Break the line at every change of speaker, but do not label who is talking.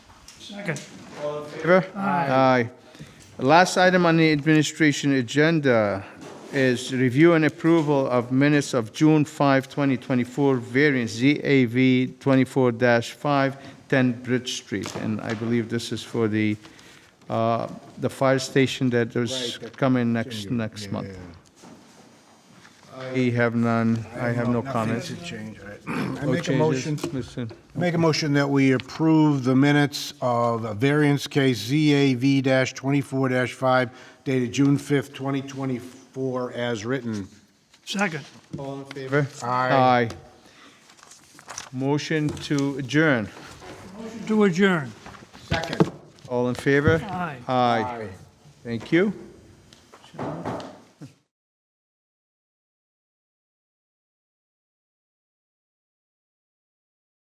Second.
All in favor?
Aye. Last item on the administration agenda is review and approval of minutes of June 5, 2024, variance ZAV 24-5, 10 Bridge Street. And I believe this is for the, uh, the fire station that is coming next, next month. We have none, I have no comments.
Nothing to change, all right. I
No
make a motion,
changes, Mr.
make a motion that we approve the minutes of a variance case ZAV-24-5 dated June 5th, 2024, as written.
Second.
All in favor?
Favor?
Aye.
Aye. Motion to adjourn.
To adjourn.
Second.
All in favor?
Aye.
Aye. Thank you.